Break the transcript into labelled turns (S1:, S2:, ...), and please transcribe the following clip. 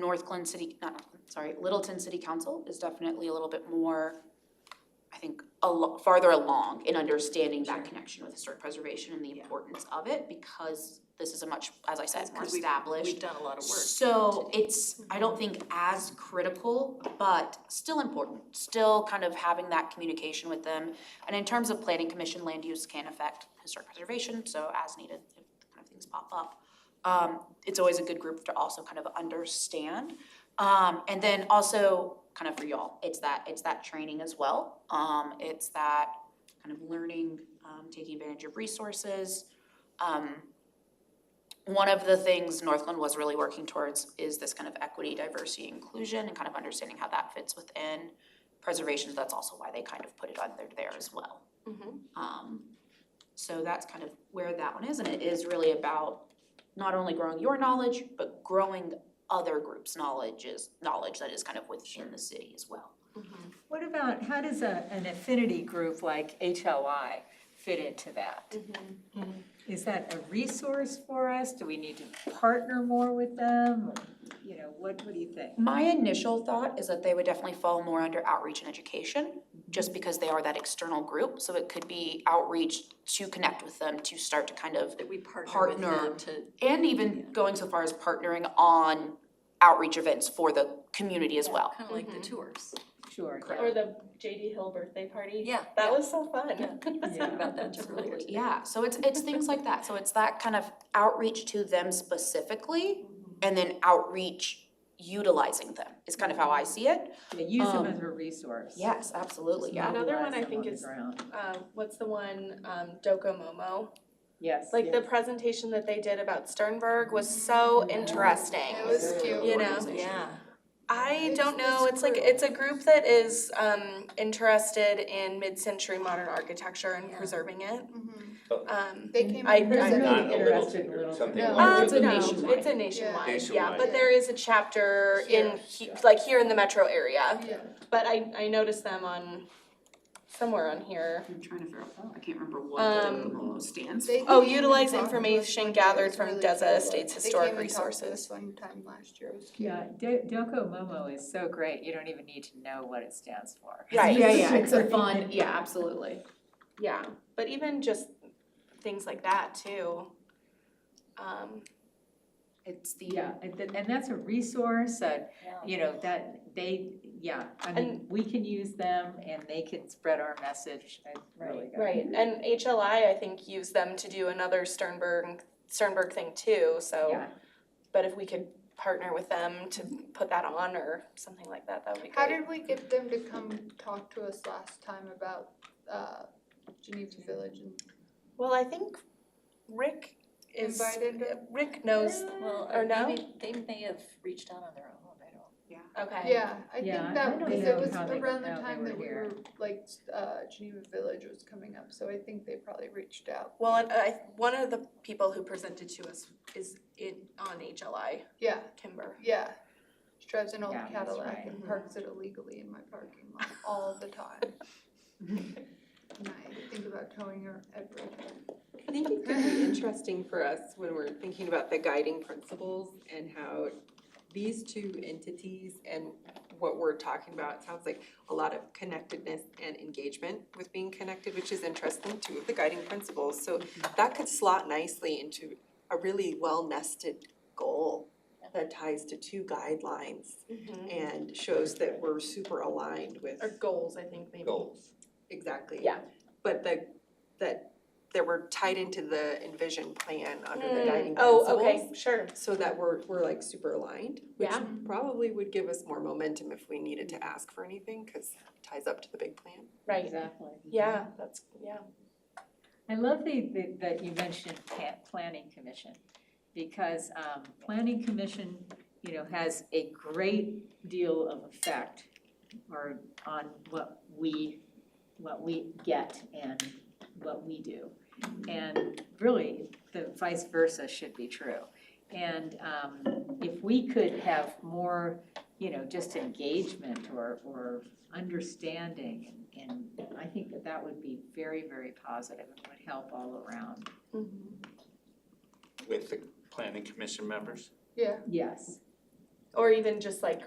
S1: North Glen City, not, North Glen, sorry, Littleton City Council is definitely a little bit more, I think, a lo- farther along in understanding that connection with historic preservation and the importance of it, because this is a much, as I said, more
S2: Because we've-
S1: established.
S2: We've done a lot of work.
S1: So it's, I don't think as critical, but still important, still kind of having that communication with them. And in terms of planning commission, land use can affect historic preservation, so as needed, if kind of things pop up. Um, it's always a good group to also kind of understand. Um, and then also, kind of for y'all, it's that, it's that training as well. Um, it's that kind of learning, um, taking advantage of resources. Um, one of the things Northland was really working towards is this kind of equity, diversity, inclusion, and kind of understanding how that fits within preservation, that's also why they kind of put it under there as well.
S2: mm-hmm,
S1: Um, so that's kind of where that one is, and it is really about not only growing your knowledge, but growing other groups' knowledge is, knowledge that is kind of within the city as well.
S2: mm-hmm.
S3: What about, how does a, an affinity group like HLI fit into that?
S4: Mm-hmm.
S3: Is that a resource for us? Do we need to partner more with them? Or, You know, what, what do you think?
S1: My initial thought is that they would definitely fall more under outreach and education, just because they are that external group, so it could be outreach to connect with them, to start to kind of
S2: That we partner with
S1: Partner.
S2: them to,
S1: And even going so far as partnering on outreach events for the community as well.
S2: kind of like the tours.
S3: Sure.
S4: Or the JD Hill birthday party.
S2: Yeah.
S4: That was so fun.
S2: Talked about that earlier. today.
S1: Yeah, so it's, it's things like that, so it's that kind of outreach to them specifically, and then outreach utilizing them, is kind of how I see it.
S3: Yeah, Use them
S1: Um,
S3: as a resource.
S1: Yes, absolutely,
S3: Just
S1: yeah.
S4: Another one
S3: mobilize
S4: I
S3: them
S4: think
S3: on the
S4: is-
S3: ground.
S4: Um, what's the one, um, Docomomo?
S3: Yes.
S4: Like the presentation that they did about Sternberg was so interesting.
S5: It was cute.
S4: You know,
S2: Yeah.
S4: I
S5: It's-
S4: don't know,
S5: it's
S4: it's like,
S5: grew.
S4: it's a group that is, um, interested in mid-century modern architecture and
S2: Yeah.
S4: preserving it. Um,
S5: Mm-hmm. They came.
S4: I-
S5: in
S4: I-
S5: person.
S4: Not
S6: a little
S3: Interested in
S6: bit,
S3: little Uh,
S6: something
S3: things.
S5: No.
S4: Um,
S6: larger than
S1: a
S4: no,
S1: nationwide.
S4: it's a nationwide, yeah, but
S6: Nationwide.
S4: there is a chapter in,
S5: Here.
S4: he- like, here in the metro area.
S5: Yeah.
S4: But I, I noticed them on, somewhere on here.
S7: I'm trying to figure out, I can't remember what the
S4: Um,
S7: Docomo stands
S5: They
S4: Oh,
S5: came in
S4: utilize
S5: and talked to us
S4: information
S5: one day. It
S4: gathered
S5: was
S4: from
S5: really
S4: Deza
S5: cool.
S4: Estates
S5: They
S4: Historic
S5: came and talked to us
S4: Resources.
S5: one time last year, it was cute.
S3: Yeah, Do- Doko Momo is so great, you don't even need to know what it stands for.
S4: Right.
S7: Yeah, yeah, it's a fun, yeah, absolutely.
S4: Yeah, but even just things like that too. Um,
S3: It's the, uh, and th- and that's a resource, uh, you know, that they, yeah, I mean, we can use them and they can spread our message. I really got it.
S4: right, and HLI, I think, used them to do another Sternberg, Sternberg thing too, so.
S3: Yeah.
S4: But if we could partner with them to put that on or something like that, that would be
S5: How
S4: great.
S5: did we get them to come talk to us last time about, uh, Geneva Village and
S4: Well, I think Rick is,
S5: invited them?
S4: Rick knows,
S2: Well,
S4: Or
S2: or
S4: no?
S2: maybe they may have reached out on their own, I don't.
S4: okay.
S5: Yeah, I
S3: Yeah,
S5: think
S3: I
S5: that,
S3: don't
S5: because
S3: know
S5: it was
S3: how they
S5: around the
S3: found they
S5: time
S3: were
S5: that we
S3: here.
S5: were, like, uh, Geneva Village was coming up, so I think they probably reached out.
S4: Well, and uh, I, one of the people who presented to us is in, on HLI,
S5: Yeah,
S4: Kimber.
S5: yeah. She drives an old
S3: Yeah, that's
S5: Cadillac
S3: right. Mm-hmm.
S5: and parks it illegally in my parking lot all the time. And I think about towing her every time.
S8: I think it could be interesting for us when we're thinking about the guiding principles and how these two entities and what we're talking about, it sounds like a lot of connectedness and engagement with being connected, which is interesting, two of the guiding principles. So that could slot nicely into a really well-nested goal that ties to two guidelines and shows that we're super aligned with
S4: Or goals, I think, maybe.
S6: goals.
S8: Exactly.
S4: Yeah.
S8: But the, that, that we're tied into the envision plan under the
S4: Mm,
S8: guiding principles.
S4: Oh, okay, sure.
S8: So that we're, we're like super aligned, which
S4: Yeah.
S8: probably would give us more momentum if we needed to ask for anything, cause it ties up to the big plan.
S4: Right.
S3: Exactly.
S4: Yeah, that's, yeah.
S3: I love the, the- that you mentioned pa- planning commission, because, um, planning commission, you know, has a great deal of effect or on what we, what we get and what we do. And really, the vice versa should be true. And, um, if we could have more, you know, just engagement or, or understanding and, and I think that that would be very, very positive and would help all around.
S4: Mm-hmm.
S6: With the planning commission members?
S5: Yeah,
S3: Yes.
S4: or even just like